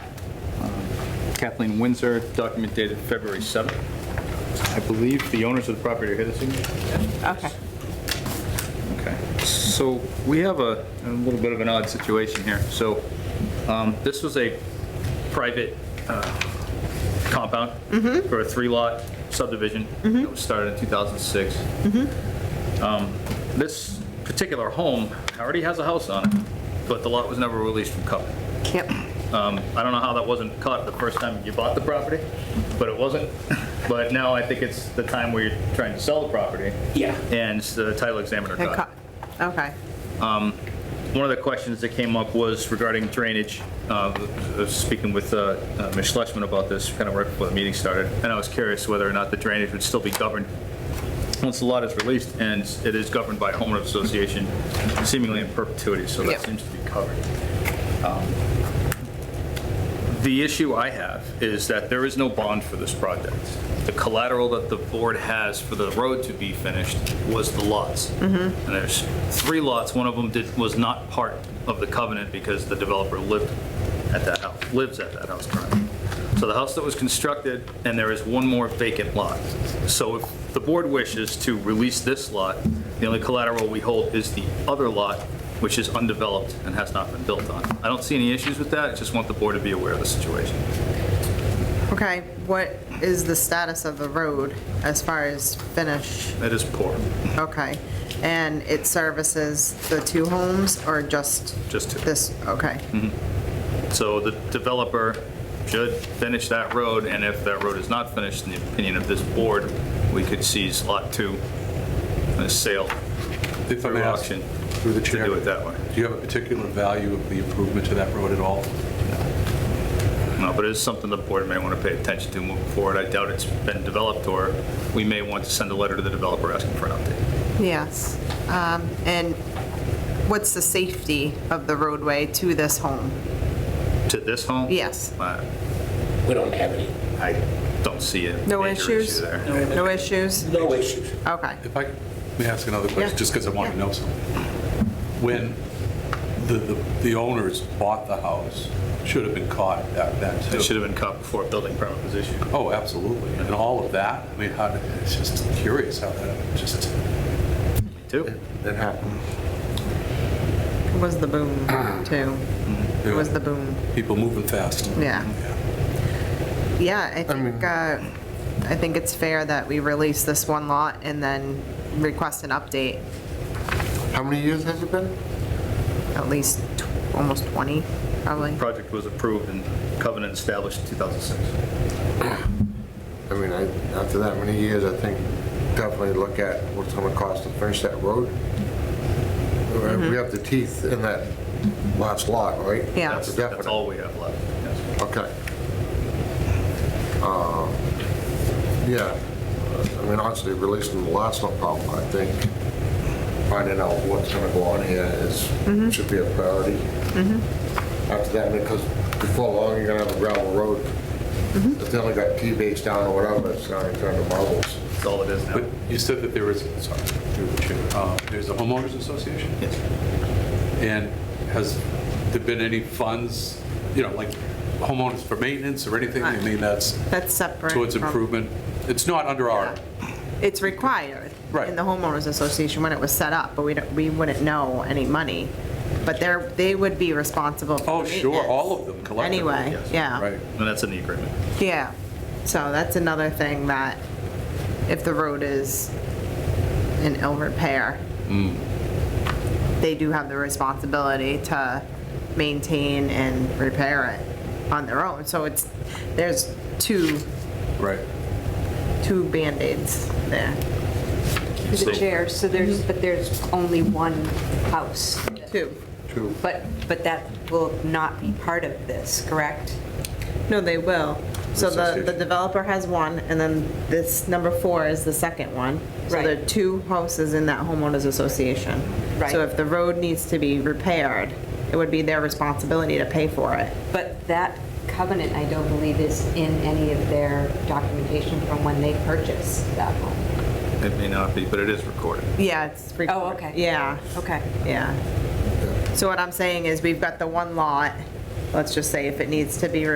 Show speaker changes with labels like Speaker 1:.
Speaker 1: Kathleen Windsor, document dated February 7th. I believe the owners of the property are here this evening.
Speaker 2: Okay.
Speaker 1: Okay, so we have a, a little bit of an odd situation here. So, um, this was a private, uh, compound for a three-lot subdivision that was started in 2006. Um, This particular home already has a house on it, but the lot was never released from covenant.
Speaker 2: Yep.
Speaker 1: Um, I don't know how that wasn't caught the first time you bought the property, but it wasn't. But now I think it's the time where you're trying to sell the property.
Speaker 3: Yeah.
Speaker 1: And the title examiner
Speaker 2: It
Speaker 1: caught.
Speaker 2: co- Okay.
Speaker 1: One of the questions that came up was regarding drainage. Uh, I was Speaking with uh, uh, Ms. Schlesman about this, kind of right before the meeting started, and I was curious whether or not the drainage would still be governed once the lot is released, and it is governed by a homeowner association seemingly in perpetuity, so that
Speaker 2: Yep.
Speaker 1: seems to be covered. Um, The issue I have is that there is no bond for this project. The collateral that the board has for the road to be finished was the lots. And there's three lots, one of them did, was not part of the covenant because the developer lived at that house, lives at that house currently. So the house that was constructed, and there is one more vacant lot. So if the board wishes to release this lot, the only collateral we hold is the other lot, which is undeveloped and has not been built on. I don't see any issues with that, I just want the board to be aware of the situation.
Speaker 2: Okay, what is the status of the road as far as finish?
Speaker 1: That is poor,
Speaker 2: Okay. And it services the two homes or just
Speaker 1: just to.
Speaker 2: this? Okay.
Speaker 1: So the developer should finish that road, and if that road is not finished, in the opinion of this board, we could seize lot two, a sale
Speaker 4: If I
Speaker 1: through
Speaker 4: may ask,
Speaker 1: auction,
Speaker 4: through the
Speaker 1: to
Speaker 4: chair.
Speaker 1: do it that way.
Speaker 4: Do you have a particular value of the improvement to that road at all?
Speaker 1: No, but it is something the board may want to pay attention to moving forward. I doubt it's been developed, or we may want to send a letter to the developer asking for an update.
Speaker 2: Yes. Um, And what's the safety of the roadway to this home?
Speaker 1: To this home?
Speaker 2: Yes.
Speaker 1: Uh,
Speaker 3: We don't have any,
Speaker 1: I don't see a
Speaker 2: No
Speaker 1: major
Speaker 2: issues?
Speaker 1: issue there.
Speaker 2: No issues?
Speaker 3: no issues.
Speaker 2: Okay.
Speaker 4: If I may ask another
Speaker 2: Yeah.
Speaker 4: question, just because I want to
Speaker 2: Yeah.
Speaker 4: know something. When the- the the owners bought the house, should have been caught at that then, too.
Speaker 1: It should have been caught before a building permit was issued.
Speaker 4: Oh, absolutely. And all of that, I mean, how, did- it's just curious how that, just,
Speaker 1: Two?
Speaker 4: that happened.
Speaker 2: It Was the boom too?
Speaker 1: Mm-hmm.
Speaker 2: It was the boom.
Speaker 4: People moving fast.
Speaker 2: Yeah. Yeah, I think, uh, I think it's fair that we release this one lot and then request an update,
Speaker 5: How many years has it been?
Speaker 2: at least tw- almost 20, probably.
Speaker 1: Project was approved and covenant established in 2006.
Speaker 5: I mean, I, after that many years, I think definitely look at what's gonna cost to finish that road. We have the teeth in that last lot, right?
Speaker 2: Yeah.
Speaker 1: That's
Speaker 5: That's a
Speaker 1: that's
Speaker 5: definite.
Speaker 1: all we have left. yes.
Speaker 5: Okay. Uh, Yeah, I mean, honestly, releasing the lot's no problem. I think finding out what's gonna go on here is, should be a priority. After that, because before long, you're gonna have a gravel road. If they only got T-base down or whatever, it's gonna turn to marbles.
Speaker 1: That's all it is now.
Speaker 4: But you said that there was, sorry, through the chair, uh, there's a homeowners association?
Speaker 1: Yes.
Speaker 4: And has there been any funds, you know, like homeowners for maintenance or anything? I mean, that's
Speaker 2: That's separate.
Speaker 4: towards
Speaker 2: from-
Speaker 4: improvement. It's not under our,
Speaker 2: It's required.
Speaker 4: Right.
Speaker 2: In the homeowners association when it was set up, but we don't, we wouldn't know any money. But they're, they would be responsible for
Speaker 4: oh,
Speaker 2: the
Speaker 4: sure, all of them
Speaker 2: maintenance
Speaker 4: collectively.
Speaker 2: Anyway,
Speaker 4: yes,
Speaker 2: yeah.
Speaker 4: Right.
Speaker 1: And that's in the agreement.
Speaker 2: Yeah, so that's another thing that if the road is in ill repair, they do have the responsibility to maintain and repair it on their own. So it's, there's two,
Speaker 4: Right.
Speaker 2: two Band-Aids there.
Speaker 6: To the chair, so there's, but there's only one house.
Speaker 2: Two.
Speaker 5: Two.
Speaker 6: But, but that will not be part of this, correct?
Speaker 2: No, they will. So the, the
Speaker 4: Association.
Speaker 2: developer has one, and then this number four is the second one. So there are
Speaker 6: Right.
Speaker 2: two houses in that homeowners association.
Speaker 6: Right.
Speaker 2: So if the road needs to be repaired, it would be their responsibility to pay for it.
Speaker 6: But that covenant, I don't believe, is in any of their documentation from when they purchased that home.
Speaker 1: It may not be, but it is recorded.
Speaker 2: Yeah, it's. recor-
Speaker 6: Oh, okay.
Speaker 2: Yeah,
Speaker 6: Okay.
Speaker 2: yeah. So what I'm saying is, we've got the one lot, let's just say if it needs to be